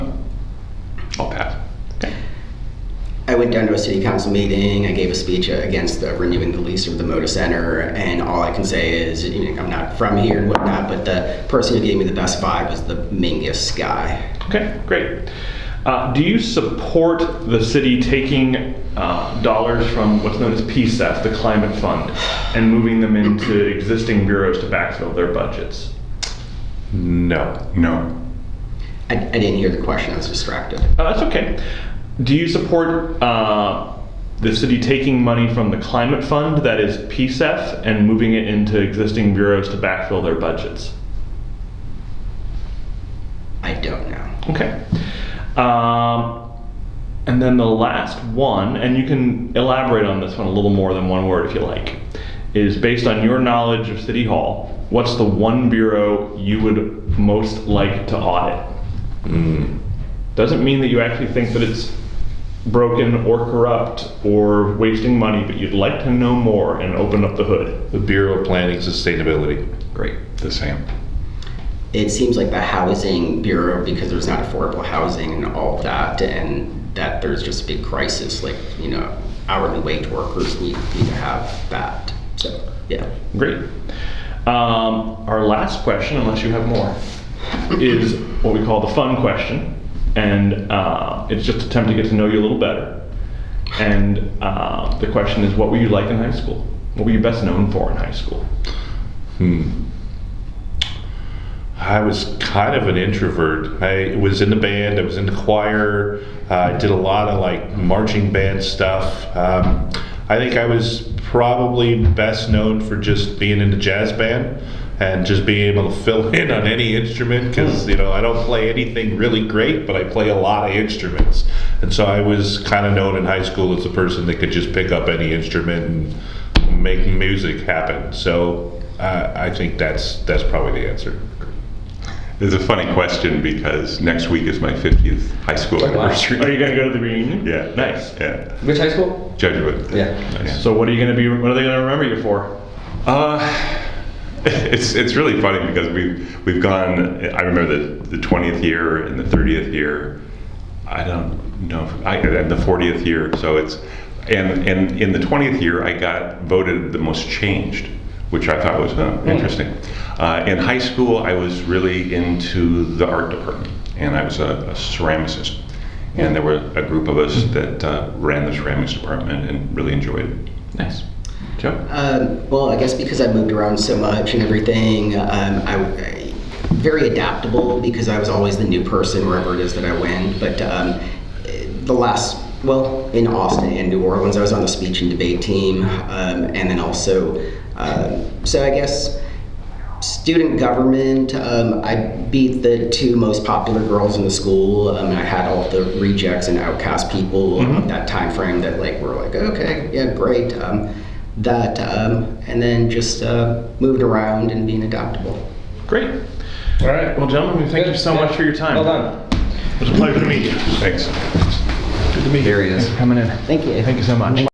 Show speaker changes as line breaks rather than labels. went down to a city council meeting. I gave a speech uh, against the renewing the lease of the Moda Center, and all I can say is, you know, I'm not from here and whatnot, but the person who gave me the best vibe was the Mingus guy.
Okay, great. Uh, do you support the city taking uh, dollars from what's known as PSEF, the Climate Fund, and moving them into existing bureaus to backfill their budgets?
No.
No.
I, I didn't hear the question. I was distracted.
Uh, that's okay. Do you support uh, the city taking money from the Climate Fund, that is PSEF, and moving it into existing bureaus to backfill their budgets?
I don't know.
Okay. Um, and then the last one, and you can elaborate on this one a little more than one word if you like, is based on your knowledge of City Hall, what's the one bureau you would most like to audit? Doesn't mean that you actually think that it's broken or corrupt or wasting money, but you'd like to know more and open up the hood.
The Bureau of Planning Sustainability.
Great.
The same.
It seems like the housing bureau because there's not affordable housing and all of that, and that there's just a big crisis. Like you know, hourly wage workers need need to have that. So yeah,
Great. Um, our last question, unless you have more, is what we call the fun question. And uh, it's just an attempt to get to know you a little better. And uh, the question is what were you like in high school? What were you best known for in high school?
I was kind of an introvert. I was in the band, I was in the choir, uh, I did a lot of like marching band stuff. Um, I think I was probably best known for just being in the jazz band and just being able to fill in on any instrument because, you know, I don't play anything really great, but I play a lot of instruments. And so I was kind of known in high school as the person that could just pick up any instrument and make music happen. So uh, I think that's that's probably the answer.
It's a funny question because next week is my 50th high school
wow.
anniversary.
Are you going to go to the reunion?
Yeah.
Nice.
Yeah.
which high school?
Jesuit.
Yeah.
Nice.
So, what are you going to be, what are they going to remember you for?
Uh, it's it's really funny because we've we've gone. I remember the the 20th year and the 30th year. I don't know. if- I and the 40th year. So it's and and in the 20th year, I got voted the most changed, which I thought was uh, interesting. Uh, in high school, I was really into the art department, and I was a, a ceramicist. And there were a group of us that uh, ran the ceramics department and really enjoyed it.
Nice. Joe?
Um, well, I guess because I moved around so much and everything, um, I, I very adaptable because I was always the new person wherever it is that I went. But um, eh, the last, well, in Austin and New Orleans, I was on the speech and debate team, um, and then also, um, so I guess student government. Um, I beat the two most popular girls in the school. Um, and I had all the rejects and outcast people of that time frame that like were like, okay, yeah, great. Um, that um, and then just uh, moved around and being adaptable.
Great. All right. Well, gentlemen, thank you so much for your
Well
time.
done.
It was a pleasure to meet you.
Thanks.
Good to meet you.
There he is.
Thanks for coming in.
Thank you.
Thank you so much.